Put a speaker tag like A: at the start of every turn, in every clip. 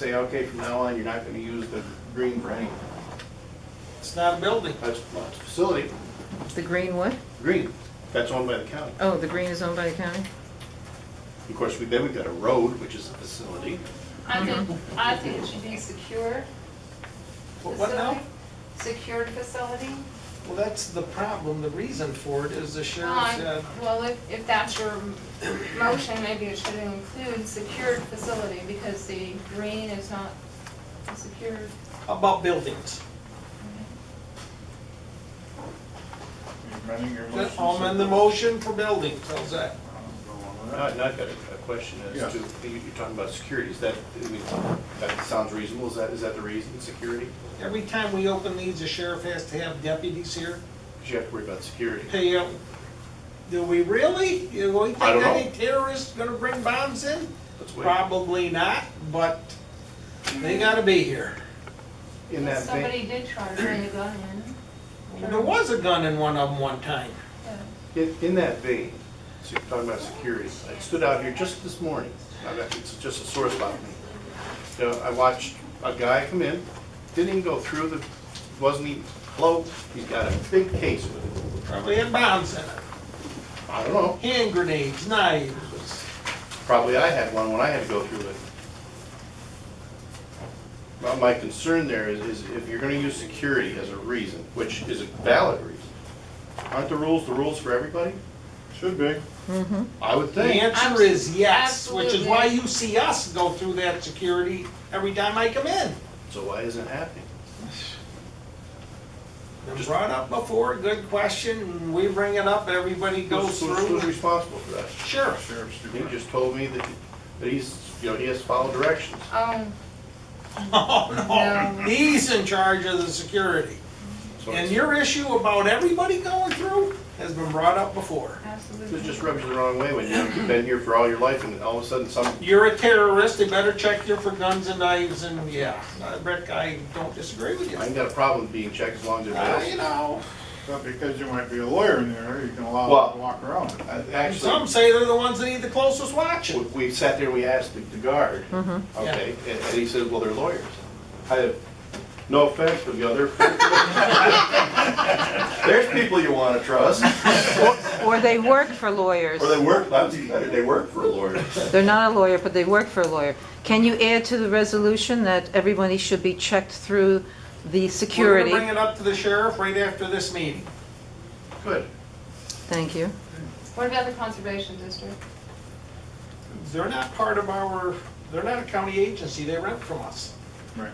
A: say, okay, from now on, you're not gonna use the green for anything.
B: It's not a building.
A: That's, that's a facility,
C: The green what?
A: green, that's owned by the county.
C: Oh, the green is owned by the county?
A: Of course, we, then we've got a road, which is a facility.
D: I think, I think it should be secure
B: What what now?
D: facility. Secured facility.
B: Well, that's the problem. The reason for it is the sheriff
D: Um,
B: said,
D: Well, if, if that's your motion, maybe it should include secured facility because the green is not a secured.
B: "How about buildings.
E: Amending your motion.
B: I'm in the motion for buildings, how's that?
A: Now, now I've got a a question
E: Yeah.
A: as to, you- you're talking about security, is that, I mean, that sounds reasonable, is that, is that the reason, security?
B: Every time we open these, the sheriff has to have deputies here,
A: Because you have to worry about security.
B: pay out. Do we really? Do we think
A: I don't know.
B: any terrorist's gonna bring bombs in?
A: Let's wait.
B: Probably not, but they gotta be here.
A: In that vein,
D: Somebody did try to bring a gun in.
B: There was a gun in one of them one time.
D: Yeah.
A: in, in that vein, so you're talking about security, I stood out here just this morning, I got- it's just a sore spot for me. You know, I watched a guy come in, didn't even go through the, wasn't even, hello, he's got a big case with him.
B: Probably had bombs in it,
A: I don't know,
B: hand grenades, knives.
A: probably I had one when I had to go through it. Well, my concern there is, is if you're gonna use security as a reason, which is a valid reason, aren't the rules the rules for everybody?
E: Should be.
C: Mm-hmm.
A: I would
B: The
A: think.
B: answer is yes, which is why
D: Absolutely.
B: you see us go through that security every time I come in.
A: So why isn't it happening?
B: Been brought up before, good question, and we bring it up, everybody
A: Who's-
B: goes
A: who's- Who's
B: through.
A: responsible for that?
B: Sure,
E: Sheriff's
A: He
E: department.
A: just told me that, that he's, you know, he has to follow directions.
D: Um,
B: oh no,
D: No.
B: he's in charge of the security.
A: So
B: And
A: it's-
B: your issue about everybody going through has been brought up before.
A: It just
D: absolutely.
A: rubs you the wrong way when you've been here for all your life and all of a sudden some,
B: You're a terrorist, they better check you for guns and knives and, yeah, Uh, Rick, I don't disagree with you.
A: I ain't got a problem being checked as long as
B: Uh, you
A: everybody else.
B: know,
E: But because you might be a lawyer in there, you can allow
A: Well-
E: them to walk around.
A: I-
B: some
A: Actually,
B: say they're the ones that need the closest
A: we-
B: watching.
A: we sat there, we asked the the guard,
C: Mhm.
A: okay, and and he said, well, they're lawyers. I have, no offense, but the other. There's people you wanna trust,
C: Or they work for lawyers.
A: or they work, that's even better, they work for a lawyer.
C: They're not a lawyer, but they work for a lawyer. Can you add to the resolution that everybody should be checked through the
B: We're gonna
C: security?
B: bring it up to the sheriff right after this meeting.
A: Good.
C: Thank you.
D: What about the conservation district?
B: They're not part of our, they're not a county agency, they rent from us.
E: Right.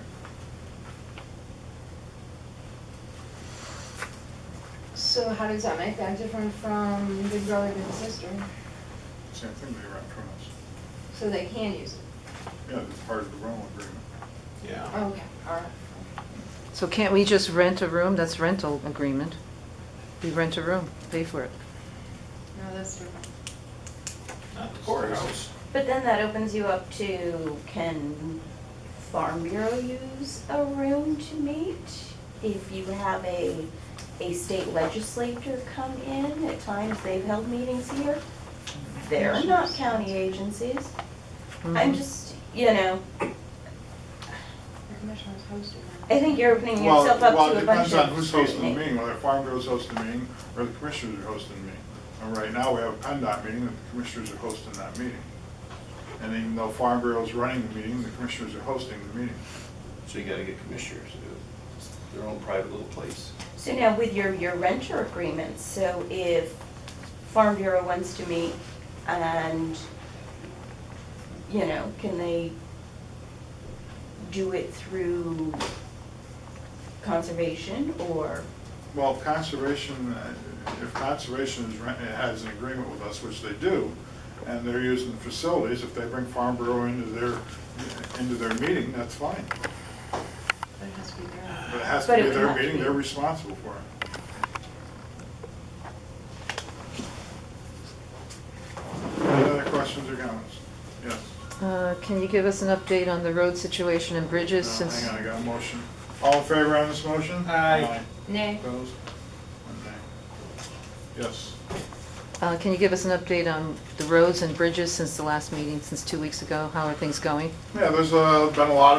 D: So how does that make that different from big brother and sister?
E: Same thing, they rent from us.
D: So they can use it?
E: Yeah, it's part of the rental agreement.
B: Yeah.
D: Okay, all right.
C: So can't we just rent a room? That's rental agreement. We rent a room, pay for it.
D: No, that's different.
B: Not the courthouse.
F: But then that opens you up to, can Farm Bureau use a room to meet? If you have a, a state legislator come in, at times they've held meetings here. They're not county agencies.
C: Mm-hmm.
E: Mm-hmm.
F: I'm just, you know,
D: The commissioner's hosting that.
F: I think you're opening
E: Well,
F: yourself up
E: well,
F: to
E: it
F: a bunch
E: depends on
F: of
E: who's hosting the
F: scrutiny.
E: meeting, whether Farm Bureau's hosting the meeting or the commissioners are hosting the meeting. And right now, we have a PennDOT meeting and the commissioners are hosting that meeting. And even though Farm Bureau's running the meeting, the commissioners are hosting the meeting.
A: So you gotta get commissioners, to do it. It's their own private little place.
F: So now with your, your renter agreements, so if Farm Bureau wants to meet and, you know, can they do it through conservation or,
E: Well, if conservation, uh, if conservation is, rent- has an agreement with us, which they do, and they're using the facilities, if they bring Farm Bureau into their, into their meeting, that's fine.
D: But it has to be there.
E: But it has to
F: But
E: be
F: it would
E: their
F: have to
E: meeting,
F: be.
E: they're responsible for it. Any other questions or comments? Yes.
C: Uh, Can you give us an update on the road situation and bridges
E: No,
C: since?
E: Hang on, I got a motion. All in favor on this motion?
B: Aye.
D: Nay.
E: Opposed? One nay. Yes.
C: Uh, Can you give us an update on the roads and bridges since the last meeting, since two weeks ago? How are things going?
E: Yeah, there's uh, been a lot of